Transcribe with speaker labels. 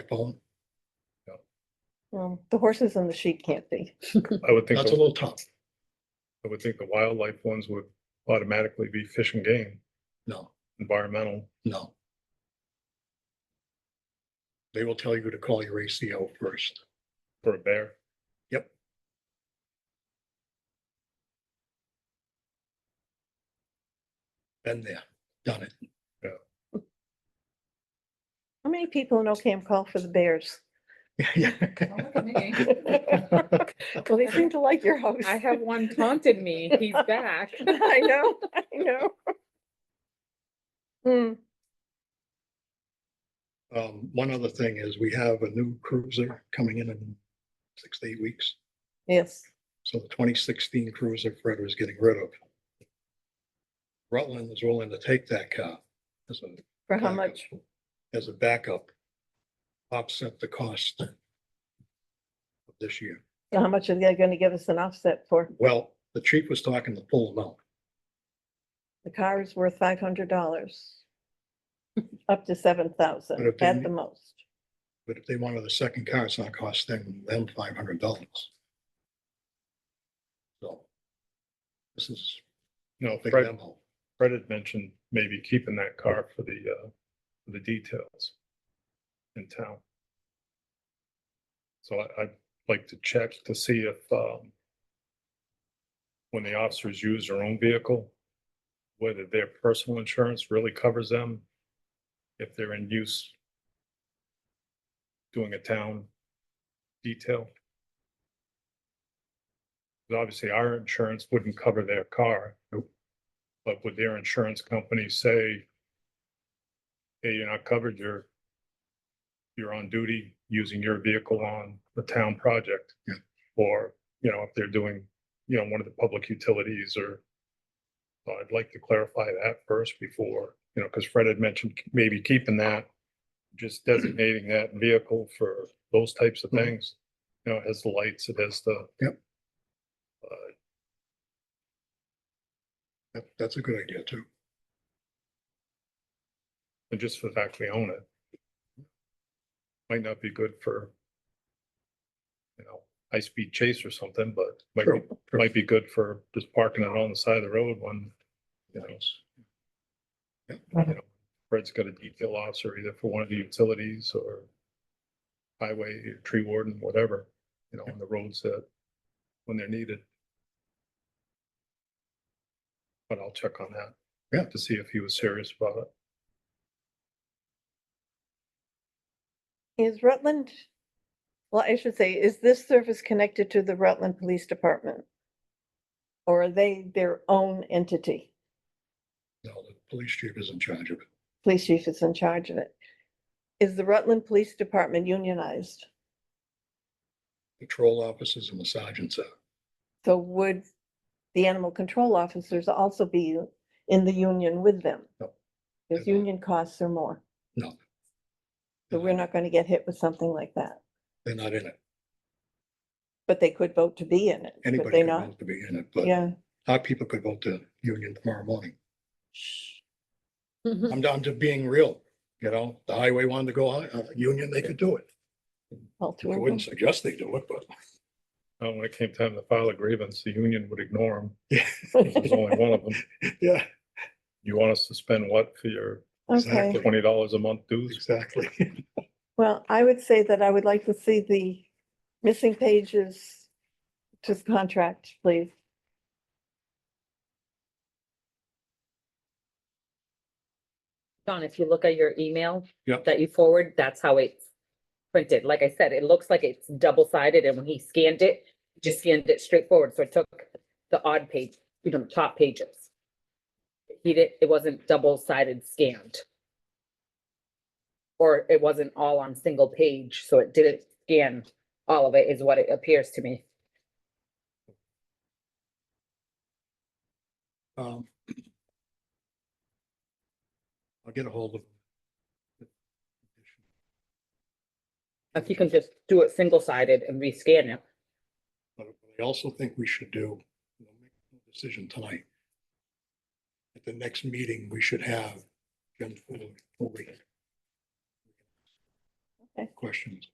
Speaker 1: Well,
Speaker 2: Um, the horses and the sheep can't be.
Speaker 3: I would think,
Speaker 1: That's a
Speaker 3: the-
Speaker 1: little tough.
Speaker 3: I would think the wildlife ones would automatically be fish and game,
Speaker 1: No,
Speaker 3: environmental.
Speaker 1: no. They will tell you to call your ACO first.
Speaker 3: For a bear?
Speaker 1: Yep. Been there, done it.
Speaker 2: How many people in Ocam call for the bears?
Speaker 1: Yeah.
Speaker 4: Don't look at me.
Speaker 2: Well, they seem to like your house.
Speaker 4: I have one taunted me, he's back.
Speaker 2: I know, I know. Hmm,
Speaker 1: Um, one other thing is we have a new cruiser coming in in six to eight weeks.
Speaker 2: yes,
Speaker 1: So the twenty sixteen cruiser Fred was getting rid of. Rutland is willing to take that car as a
Speaker 2: for how
Speaker 1: backup-
Speaker 2: much?
Speaker 1: As a backup. Offset the cost. of This year.
Speaker 2: How much are they gonna give us an offset for?
Speaker 1: Well, the chief was talking the full amount.
Speaker 2: The car is worth five hundred dollars. Up to seven
Speaker 1: But
Speaker 2: thousand
Speaker 1: if they
Speaker 2: at
Speaker 1: need-
Speaker 2: the most.
Speaker 1: But if they wanted a second car, it's not costing them five hundred dollars. So. This is,
Speaker 3: You know,
Speaker 1: a big
Speaker 3: Fred,
Speaker 1: demo.
Speaker 3: Fred had mentioned maybe keeping that car for the, uh, for the details in town. So I, I'd like to check to see if, um, when the officers use their own vehicle, whether their personal insurance really covers them, if they're in use doing a town detail. 'Cause Obviously, our insurance wouldn't cover their car. But would their insurance company say, hey, you're not covered, you're, you're on duty using your vehicle on the town project?
Speaker 1: Yeah.
Speaker 3: Or, you know, if they're doing, you know, one of the public utilities or, so I'd like to clarify that first before, you know, because Fred had mentioned maybe keeping that, just designating that vehicle for those types of
Speaker 1: Mhm.
Speaker 3: things. You know, it has the lights, it has the,
Speaker 1: That, that's a good idea too.
Speaker 3: and just for the fact we own it. Might not be good for. You know, high speed chase or something, but might
Speaker 1: True,
Speaker 3: be, might be good for just parking it on the side of the road when, you know. s-
Speaker 1: Yeah.
Speaker 3: you know, Fred's got a detail officer either for one of the utilities or. Highway, tree warden, whatever, you know, on the roads that, when they're needed. But I'll check on that.
Speaker 1: Yeah.
Speaker 3: To see if he was serious about it.
Speaker 2: Is Rutland, well, I should say, is this service connected to the Rutland Police Department? Or are they their own entity?
Speaker 1: No, the police chief is in charge of it.
Speaker 2: Police chief is in charge of it. Is the Rutland Police Department unionized?
Speaker 1: Patrol officers and the sergeants are.
Speaker 2: So would the animal control officers also be in the union with them?
Speaker 1: No.
Speaker 2: Because
Speaker 1: They're not.
Speaker 2: union costs are more,
Speaker 1: No.
Speaker 2: so we're not going to get hit with something like that.
Speaker 1: They're not in it.
Speaker 2: But they could vote to be in it, could
Speaker 1: Anybody
Speaker 2: they
Speaker 1: could
Speaker 2: not?
Speaker 1: vote to be in it, but
Speaker 2: Yeah.
Speaker 1: our people could vote to union tomorrow morning. I'm down to being real, you know, the highway wanted to go, uh, union, they could do it.
Speaker 2: all
Speaker 1: I
Speaker 2: two of them.
Speaker 1: wouldn't suggest they do it, but
Speaker 3: Uh, when it came time to file a grievance, the union would ignore them.
Speaker 1: Yeah.
Speaker 3: There's only one of them.
Speaker 1: yeah,
Speaker 3: You want us to spend what for your
Speaker 2: Okay.
Speaker 1: Exactly.
Speaker 3: twenty dollars a month dues?
Speaker 1: exactly.
Speaker 2: Well, I would say that I would like to see the missing pages to the contract, please.
Speaker 4: Don, if you look at your email.
Speaker 1: Yep.
Speaker 4: That you forward, that's how it's printed. Like I said, it looks like it's double sided and when he scanned it, he just scanned it straight forward. So it took the odd page, you know, the top pages. He did, it wasn't double sided scanned. Or it wasn't all on single page, so it didn't scan all of it is what it appears to me.
Speaker 1: Um, I'll get a hold of.
Speaker 4: If you can just do it single sided and rescan it.
Speaker 1: But I also think we should do, we'll make a decision tonight. At the next meeting, we should have Jim Fuller.
Speaker 2: Okay.
Speaker 1: questions.